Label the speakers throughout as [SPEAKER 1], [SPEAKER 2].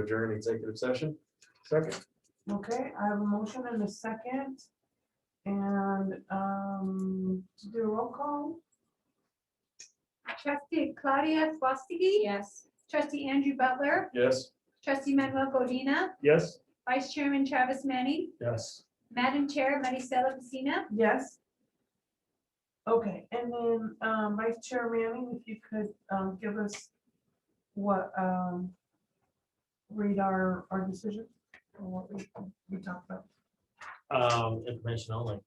[SPEAKER 1] adjourn executive session. Second.
[SPEAKER 2] Okay, I have a motion and a second. And um, to do a roll call,
[SPEAKER 3] Trustee Claudia Swastiki?
[SPEAKER 4] Yes.
[SPEAKER 3] Trustee Andrew Butler?
[SPEAKER 1] Yes.
[SPEAKER 3] Trustee Manuel Godina?
[SPEAKER 1] Yes.
[SPEAKER 3] Vice Chairman Travis Manning?
[SPEAKER 1] Yes.
[SPEAKER 3] Madam Chair Maricela Messina?
[SPEAKER 2] yes? Okay, and then um, Vice Chair Manning, if you could um, give us what, um, read our, our decision or what we we talked about.
[SPEAKER 5] Um, information only.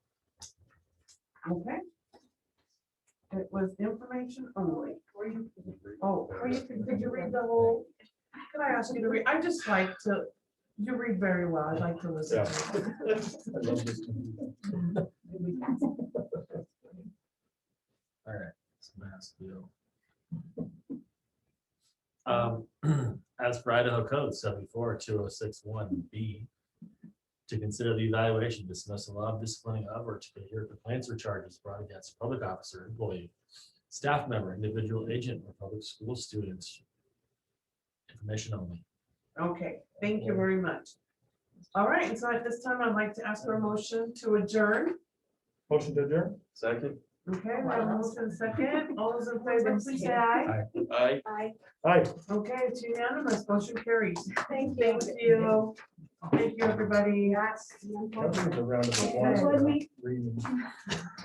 [SPEAKER 2] Okay. It was information only. Oh, or you could, could you read the whole, can I ask you to read, I just like to, you read very well, I like to listen. to you.
[SPEAKER 5] All right. it's a mass deal. Um, as for Idaho Code seventy-four two oh six one B, to consider the evaluation, dismissal of, disciplining of, or to hear complaints or charges brought against a public officer, employee, staff member, individual agent, or public school student. Information only.
[SPEAKER 2] Okay, thank you very much. All right, and so at this time, I'd like to ask for a motion to adjourn.
[SPEAKER 1] Motion to adjourn. Second.
[SPEAKER 2] Okay, we have a motion and second, all those in favor, please say aye.
[SPEAKER 1] Aye.
[SPEAKER 4] Aye.
[SPEAKER 1] Aye.
[SPEAKER 2] Okay, it's unanimous, motion carries.
[SPEAKER 4] Thank you.
[SPEAKER 2] Thank you. Thank you, everybody.
[SPEAKER 1] That was a round of applause
[SPEAKER 2] Yeah.
[SPEAKER 1] for that reading.